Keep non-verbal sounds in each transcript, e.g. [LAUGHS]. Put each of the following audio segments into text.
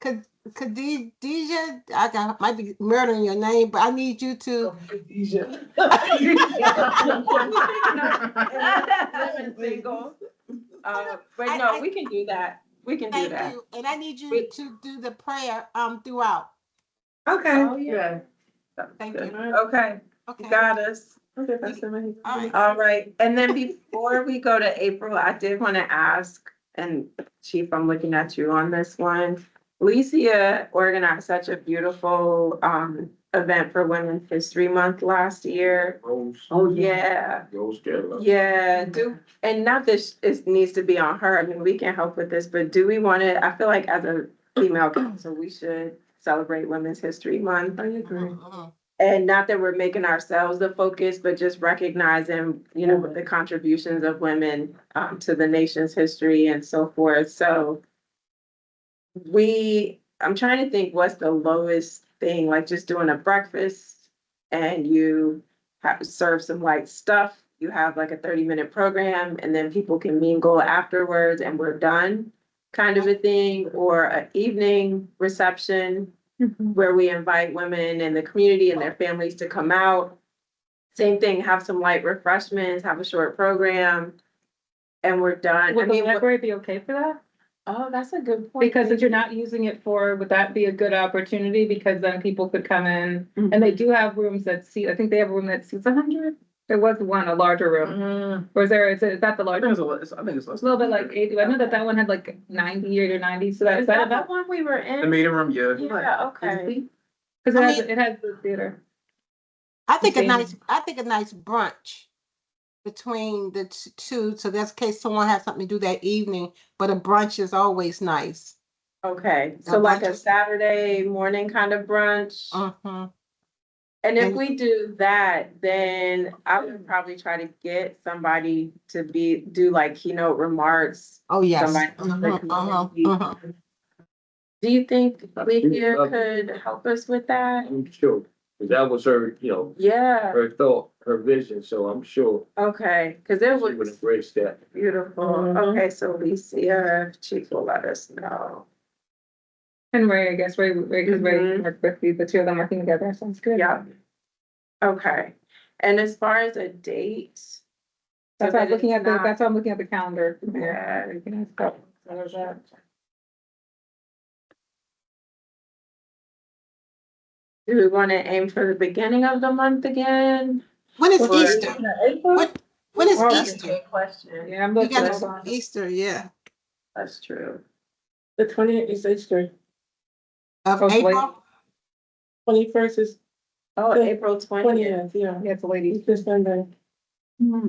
Khad- Khadija, I got, might be murdering your name, but I need you to. [LAUGHS] [LAUGHS] Living single. Uh, But no, we can do that. We can do Thank that. you, and I need you Wait. to do the prayer um throughout. Okay. Oh, yeah. Sounds Thank good. you. Okay, Okay. you got us. Okay, Pastor Mahi. All right. All right, and then before we go to April, I did want to ask, and Chief, I'm looking at you on this one. Licia organized such a beautiful um event for Women's History Month last year. Rose, Oh, Yeah, Rose Keller. yeah, Mm-hmm. do, and not this, it needs to be on her, I mean, we can help with this, but do we want to, I feel like as a female council, we should celebrate Women's History Month. I agree. Mhm. And not that we're making ourselves the focus, but just recognizing, you know, the contributions of women um, to the nation's history and so forth. So we, I'm trying to think what's the lowest thing, like just doing a breakfast and you have serve some light stuff. You have like a 30 minute program and then people can mingle afterwards and we're done kind of a thing or an evening reception Mm-hmm. where we invite women in the community and their families to come out. Same thing, have some light refreshments, have a short program, and we're done. I Would the mean, what- library be okay for that? oh, that's a good point. Because if you're not using it for, would that be a good opportunity? Because then people could come in. And they do have rooms that seat, I think they have a room that seats hundred. There was one, a larger room. Mm-hmm. Or is there, is it- is that the I larger? think room? it's a lot- it's- I think it's less. It's a little bit like eighty, I know that that one had like ninety or ninety, so that, Is is that that the about? one we were The in? meeting room, yeah. Yeah, okay. Cause it I has, mean- it has the theater. I think a Okay. nice, I think a nice brunch between the t- two, so that's in case someone has something to do that evening, but a brunch is always nice. Okay, so Now, like a brunch- Saturday morning kind of brunch. Uh-huh. Mhm. And if And- we do that, then I would probably try to get somebody to be, do like keynote remarks. Oh, yes. Somebody from the Mhm, mhm, community. mhm. Do you think Uh, Leakia could help us with that? I'm sure, 'cause that was her, you know, Yeah, her thought, her vision, so I'm sure okay, because it she would was embrace that. beautiful. Mm-hmm. Okay, so Leakia, Chief will let us know. And Ray, I guess, Ray, Ray, cause Ray Mhm. worked with you, the two of them working together, sounds good. Yeah. Okay, and as far as a date? so That's why that I'm looking it's at the, not- that's why I'm looking at the calendar. Yeah. You can ask about- what is that? Do we want to aim for the beginning of the month again? When is Or- Easter? When, when is Or- Easter? Good Question, Yeah, I'm You looking. hold on. got Easter, yeah, that's true. The twentieth is Easter, of Oh, wait. April. twenty-first is Oh, The April twentieth. twentieth, yeah. Yeah, it's a lady. Easter Sunday. Mm-hmm.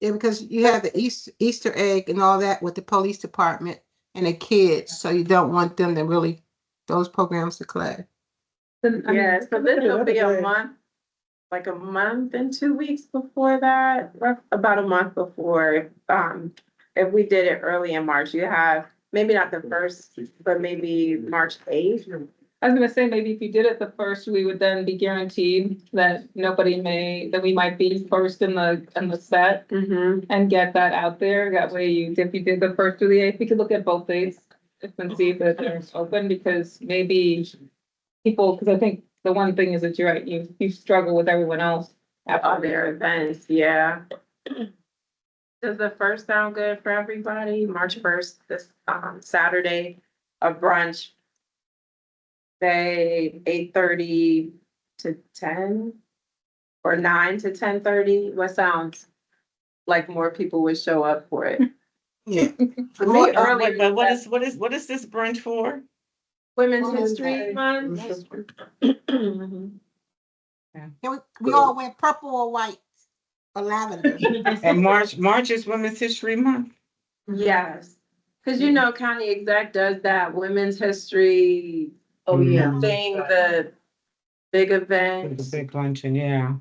Yeah, because you have the Easter, Easter egg and all that with the police department and the kids, so you don't want them to really, those programs to clash. Then, I mean, Yeah, so look then at it'll another be a day. month, like a month and two weeks before that, rough, about a month before. Um, if we did it early in March, you have, maybe not the first, but maybe March eighth. I was gonna say, maybe if you did it the first, we would then be guaranteed that nobody may, that we might be first in the, in the set Mm-hmm. and get that out there. That way you, if you did the first through the eighth, we could look at both dates and see if they're open, because maybe people, because I think the one thing is that you're right, you, you struggle with everyone else. All after their there. events, yeah. Does the first sound good for everybody? March first, this, um, Saturday, a brunch. Say eight thirty to ten? Or nine to ten thirty? What sounds like more people would show up for it? Yeah. For me, Or- early Wait, But what is, what is, what is this brunch for? Women's Oh Women's History Day. Month? Can we, we all wear purple or white or lavender. And March, March is Women's History Month? Yes, because you know, county exec does that Women's History Oh, yeah. thing, the big event. It's a big luncheon, yeah.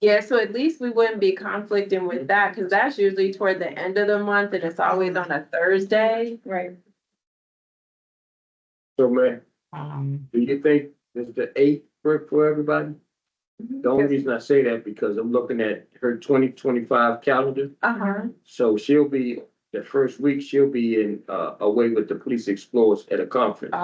Yeah, so at least we wouldn't be conflicting with that, because that's usually toward the end of the month and it's always on a Thursday. Right. So, man, Um, do you think this the eighth work for everybody? The only reason I say that because I'm looking at her twenty twenty-five calendar, Uh-huh. so she'll be, the first week, she'll be in, uh, away with the police explorers at a conference.